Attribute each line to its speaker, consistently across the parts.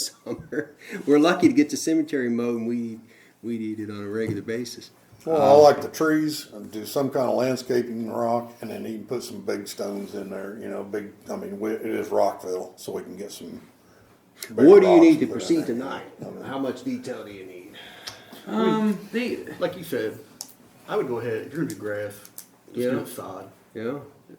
Speaker 1: summer. We're lucky to get the cemetery mowed and we, we eat it on a regular basis.
Speaker 2: Well, I
Speaker 1: Um,
Speaker 2: like the trees, and do some kind of landscaping in rock, and then even put some big stones in there, you know, big, I mean, we- it is Rockville, so we can get some. bigger
Speaker 1: What do you
Speaker 2: rocks
Speaker 1: need to
Speaker 2: put in
Speaker 1: proceed
Speaker 2: there.
Speaker 1: tonight? How much detail do you need?
Speaker 3: Um, they,
Speaker 4: Like you said, I would go ahead, if you're gonna do grass, just do
Speaker 1: Yeah.
Speaker 4: the sod.
Speaker 1: Yeah,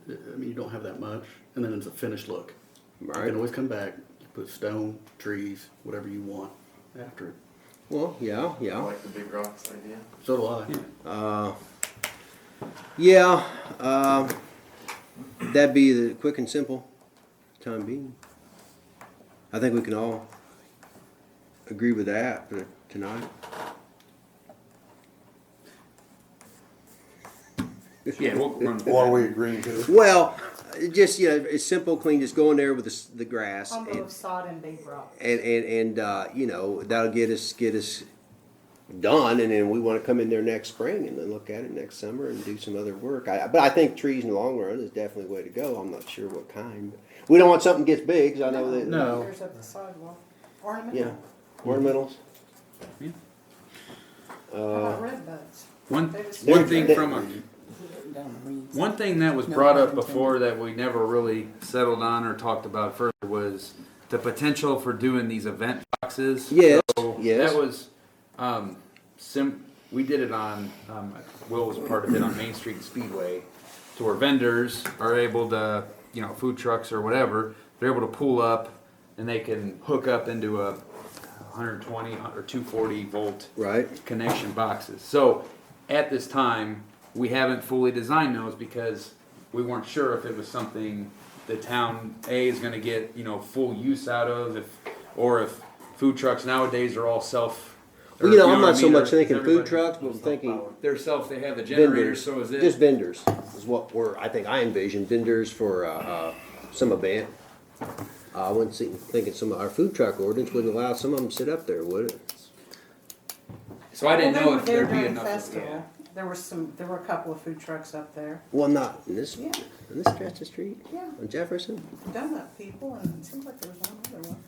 Speaker 4: I I mean, you don't have that much, and then it's a finished look. You
Speaker 1: Right.
Speaker 4: can always come back, you put stone, trees, whatever you want after it.
Speaker 1: well, yeah,
Speaker 5: I
Speaker 1: yeah.
Speaker 5: like the big rocks idea.
Speaker 4: So do I.
Speaker 1: Yeah, um, that'd be the quick and simple time being. I think we can all agree with that for tonight.
Speaker 6: Yeah, we'll run.
Speaker 2: What are we agreeing to?
Speaker 1: Well, it just, you know, it's simple, clean, just go in there with the, s- the grass.
Speaker 7: Combo
Speaker 1: and-
Speaker 7: of sod and big rock.
Speaker 1: and and and uh, you know that'll get us get us done, and then we want to come in there next spring and then look at it next summer and do some other work. I, but I think trees in the long run is definitely the way to go. I'm not sure what kind. We don't want something gets big. 'cause I know that.
Speaker 4: No.
Speaker 7: There's up the sidewalk. Ornament.
Speaker 1: Yeah, ornamentals.
Speaker 7: How about red buds?
Speaker 6: One,
Speaker 7: They was-
Speaker 6: one thing from a,
Speaker 8: One
Speaker 6: one thing that was brought up before that we never really settled on or talked about further was the potential for doing these event boxes.
Speaker 1: Yes,
Speaker 6: So
Speaker 1: yes.
Speaker 6: That was, um, sim, we did it on, um, Will was part of it on Main Street Speedway, to where vendors are able to, you know, food trucks or whatever, they're able to pull up and they can hook up into a 120 or 240 volt
Speaker 1: Right.
Speaker 6: connection boxes. So at this time, we haven't fully designed those because we weren't sure if it was something the town A is going to get you know full use out of, if or if food trucks nowadays are all self. or,
Speaker 1: Well, you know, I'm
Speaker 6: what
Speaker 1: not
Speaker 6: I
Speaker 1: so
Speaker 6: mean?
Speaker 1: much
Speaker 6: They're-
Speaker 1: thinking food
Speaker 6: everybody-
Speaker 1: trucks, but I'm thinking
Speaker 6: They're self. They have the
Speaker 1: vendors.
Speaker 6: generators. So is it
Speaker 1: Just vendors is what we're. I think I envision vendors for uh, uh, some event. I wouldn't see, thinking some of our food truck ordinance wouldn't allow some of them to sit up there, would it?
Speaker 6: So I didn't
Speaker 7: Well, they
Speaker 6: know
Speaker 7: were
Speaker 6: if
Speaker 7: there
Speaker 6: there'd be
Speaker 7: during the
Speaker 6: enough.
Speaker 7: festival.
Speaker 6: yeah.
Speaker 7: There were some, there were a couple of food trucks up there.
Speaker 1: Well, not in this,
Speaker 7: Yeah.
Speaker 1: in this stretch of street?
Speaker 7: Yeah.
Speaker 1: On Jefferson?
Speaker 7: Donut people and it seems like there was one other one.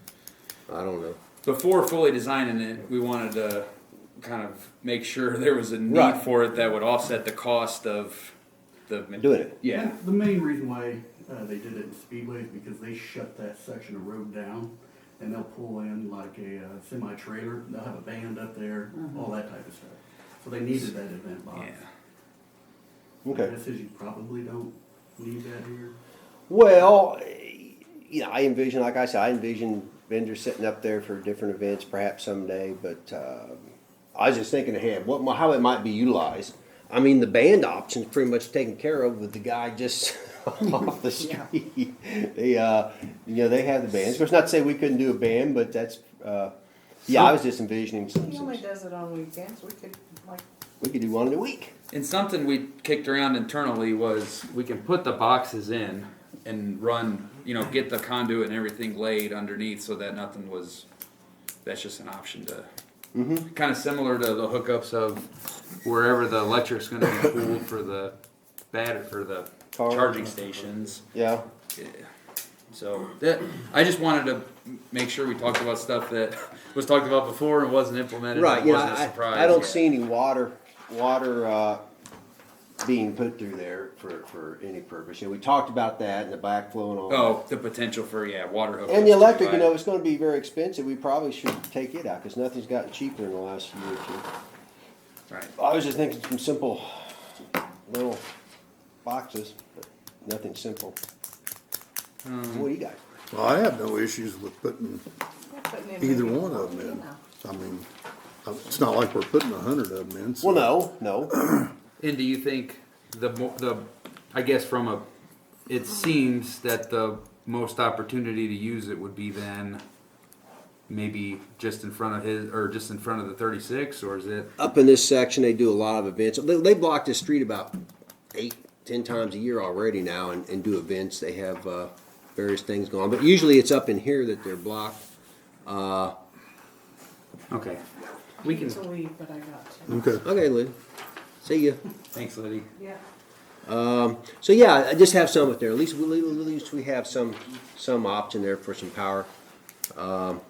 Speaker 1: I don't know.
Speaker 6: Before fully designing it, we wanted to kind of make sure there was a need
Speaker 1: Right.
Speaker 6: for it that would offset the cost of the
Speaker 1: Doing it.
Speaker 6: Yeah.
Speaker 4: The main reason why uh, they did it in Speedway is because they shut that section of road down, and they'll pull in like a uh, semi trailer. They'll have a band up there, all that type of stuff. So they needed that event box.
Speaker 6: Mm-hmm. Yeah.
Speaker 1: Okay.
Speaker 4: My guess is you probably don't need that here.
Speaker 1: Well, eh, you know, I envision, like I said, I envision vendors sitting up there for different events perhaps someday, but, um, I was just thinking ahead, what, mi- how it might be utilized. I mean, the band option's pretty much taken care of with the guy just off the street. They, uh, you know, they have the bands. Of course, not to say we couldn't do a band, but that's, uh, yeah, I was just envisioning some,
Speaker 7: He only does it on weekends. We could like,
Speaker 1: we could do one in a week.
Speaker 6: And something we kicked around internally was we can put the boxes in and run, you know, get the conduit and everything laid underneath so that nothing was. That's just an option to.
Speaker 1: Mm-hmm.
Speaker 6: Kind of similar to the hookups of wherever the electric's going to be pooled for the batter for the
Speaker 1: Car.
Speaker 6: charging stations.
Speaker 1: Yeah.
Speaker 6: Yeah. So that I just wanted to make sure we talked about stuff that was talked about before and wasn't implemented.
Speaker 1: Right,
Speaker 6: and
Speaker 1: yeah,
Speaker 6: wasn't a
Speaker 1: I,
Speaker 6: surprise
Speaker 1: I don't
Speaker 6: yet.
Speaker 1: see any water, water, uh, being put through there for, for any purpose. You know, we talked about that and the backflow and all. that.
Speaker 6: Oh, the potential for yeah, water hookups.
Speaker 1: And the electric, you
Speaker 6: Right.
Speaker 1: know, it's gonna be very expensive. We probably should take it out, cause nothing's gotten cheaper in the last year or two.
Speaker 6: Right.
Speaker 1: I was just thinking some simple little boxes, but nothing simple.
Speaker 6: Hmm.
Speaker 1: What do you got?
Speaker 2: Well, I have no issues with putting
Speaker 7: we're putting in.
Speaker 2: either
Speaker 7: maybe-
Speaker 2: one of them
Speaker 7: Yeah.
Speaker 2: in. I mean, uh, it's not like we're putting a hundred of them in. so-
Speaker 1: Well, no, no,
Speaker 6: And do you think the mo- the I guess from a it seems that the most opportunity to use it would be then maybe just in front of his or just in front of the 36 or is it
Speaker 1: up in this section, they do a lot of events. They, they block this street about eight, ten times a year already now and, and do events. They have uh, various things going on, but usually it's up in here that they're blocked.
Speaker 6: okay we can
Speaker 7: It's a weed, but I got to.
Speaker 2: Okay.
Speaker 1: Okay, Lou. See ya.
Speaker 6: thanks Liddy
Speaker 7: Yeah.
Speaker 1: So yeah, I just have some up there. At least, we- at least we have some some option there for some power. Um,